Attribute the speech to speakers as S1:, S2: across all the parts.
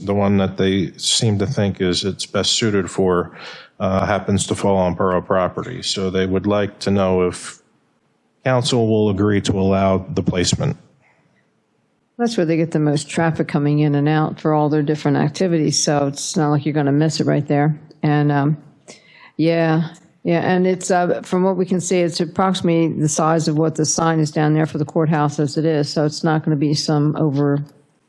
S1: The one that they seem to think is it's best suited for uh, happens to fall on borough property. So they would like to know if council will agree to allow the placement.
S2: That's where they get the most traffic coming in and out for all their different activities, so it's not like you're going to miss it right there. And, um, yeah, yeah, and it's, uh, from what we can see, it's approximately the size of what the sign is down there for the courthouse as it is, so it's not going to be some over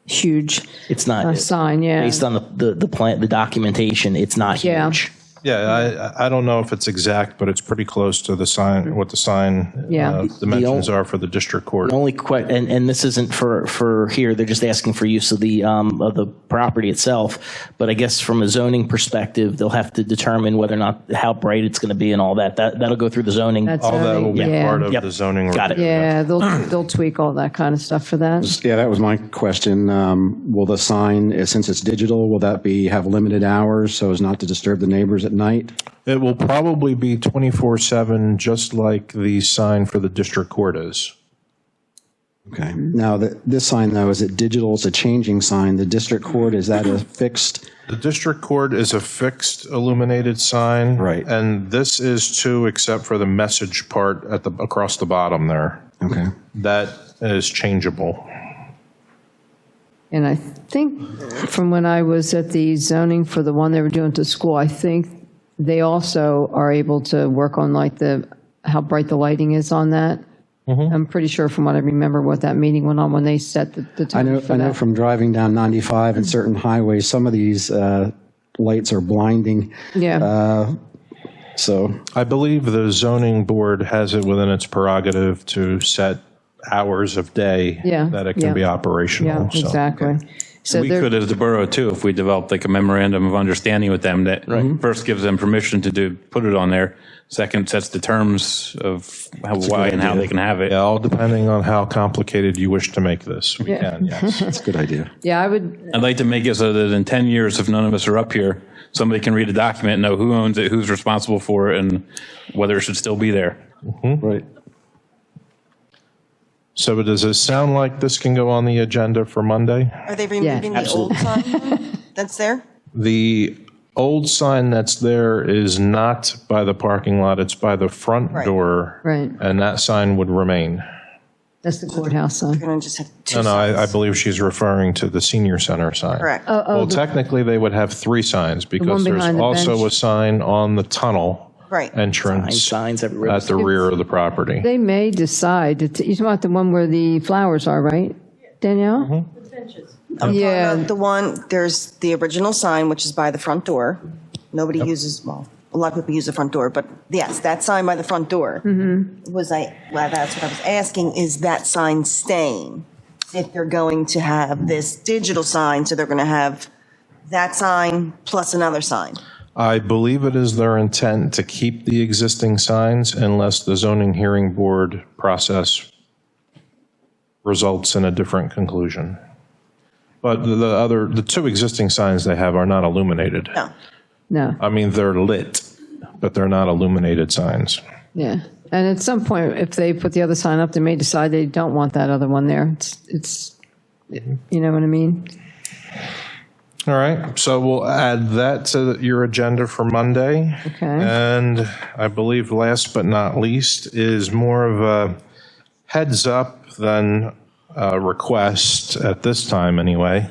S2: huge
S3: It's not
S2: uh, sign, yeah.
S3: based on the, the the plan, the documentation. It's not
S2: Yeah.
S3: huge.
S1: Yeah, I- I, I don't know if it's exact, but it's pretty close to the sign, what the sign
S2: Yeah.
S1: uh, dimensions are for the district court.
S3: Only que- and, and this isn't for, for here, they're just asking for use of the, um, of the property itself. But I guess from a zoning perspective, they'll have to determine whether or not, how bright it's going to be and all that. That, that'll go through the zoning.
S2: That's
S1: All that
S2: zoning,
S1: will be
S2: yeah.
S1: part of
S3: Yep.
S1: the zoning.
S3: Got it.
S1: review.
S2: Yeah, they'll, they'll tweak all that kind of stuff for that.
S4: Yeah, that was my question. Um, Will the sign, eh, since it's digital, will that be, have limited hours so as not to disturb the neighbors at night?
S1: It will probably be 24/7, just like the sign for the district court is.
S4: Okay. Now, th- this sign, though, is it digital? It's a changing sign. The district court, is that a fixed?
S1: The district court is a fixed illuminated sign.
S4: Right.
S1: And this is too, except for the message part at the, across the bottom there.
S4: Okay.
S1: That is changeable.
S2: And I think from when I was at the zoning for the one they were doing to school, I think they also are able to work on like the, how bright the lighting is on that.
S1: Mm-hmm.
S2: I'm pretty sure from what I remember what that meeting went on when they set the, the
S4: I
S2: time
S4: know,
S2: for
S4: I know
S2: that.
S4: from driving down 95 and certain highways, some of these uh, lights are blinding. uh,
S2: Yeah,
S4: So,
S1: I believe the zoning board has it within its prerogative to set hours of day
S2: Yeah,
S1: that it can
S2: yeah.
S1: be
S2: yeah,
S1: operational. So
S2: exactly. So
S5: We
S2: they're-
S5: could, as the borough too, if we developed like a memorandum of understanding with them that first gives them permission to do, put it on there. Second sets the terms of how, why and how they can have it.
S1: Yeah, all depending on how complicated you wish to make this. We
S2: Yeah.
S1: can, yes.
S4: it's a good idea.
S2: Yeah, I would,
S5: I'd like to make it so that in 10 years, if none of us are up here, somebody can read a document, know who owns it, who's responsible for it, and whether it should still be there.
S4: Right.
S1: So does it sound like this can go on the agenda for Monday?
S6: Are they removing the old sign that's there?
S1: The old sign that's there is not by the parking lot, it's by the front
S6: Right.
S1: door.
S2: Right.
S1: And that sign would remain.
S2: that's the courthouse sign.
S6: We're going to just have two
S1: No, no, I, I
S6: signs.
S1: believe she's referring to the senior center sign.
S6: Correct.
S2: Oh,
S1: Well, technically, they would have three signs because there's
S2: behind the
S1: also
S2: bench.
S1: a sign on the tunnel
S6: Right.
S3: Signs-
S1: entrance at
S3: Signs everywhere.
S1: the rear of the property.
S2: They may decide, to t- you're talking about the one where the flowers are, right, Danielle?
S1: Mm-hmm.
S6: Uh,
S2: Yeah,
S6: The one, there's the original sign, which is by the front door. Nobody uses, well, a lot of people use the front door, but yes, that sign by the front door. Was I, well, that's what I was asking, is that sign staying? If they're going to have this digital sign, so they're going to have that sign plus another sign.
S1: I believe it is their intent to keep the existing signs unless the zoning hearing board process results in a different conclusion. But the the other, the two existing signs they have are not illuminated.
S6: No.
S2: no.
S1: I mean, they're lit, but they're not illuminated signs.
S2: Yeah, and at some point, if they put the other sign up, they may decide they don't want that other one there. It's, it's, you know what I mean?
S1: All right, so we'll add that to your agenda for Monday.
S2: Okay.
S1: And I believe last but not least is more of a heads up than a request at this time, anyway.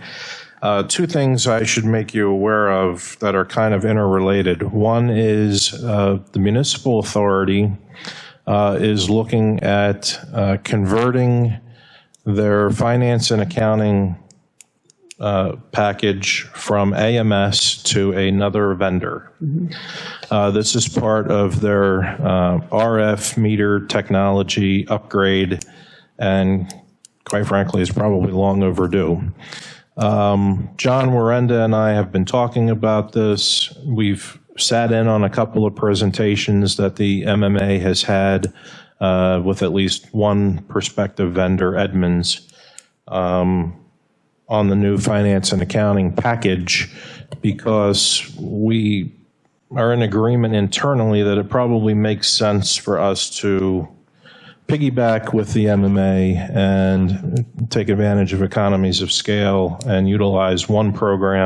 S1: Uh, Two things I should make you aware of that are kind of interrelated. One is uh, the municipal authority uh, is looking at uh, converting their finance and accounting uh, package from AMS to another vendor. Uh, This is part of their uh, RF meter technology upgrade, and quite frankly, is probably long overdue. Um, John Warenda and I have been talking about this. We've sat in on a couple of presentations that the MMA has had uh, with at least one prospective vendor, Edmunds Um, on the new finance and accounting package because we are in agreement internally that it probably makes sense for us to piggyback with the MMA and take advantage of economies of scale and utilize one program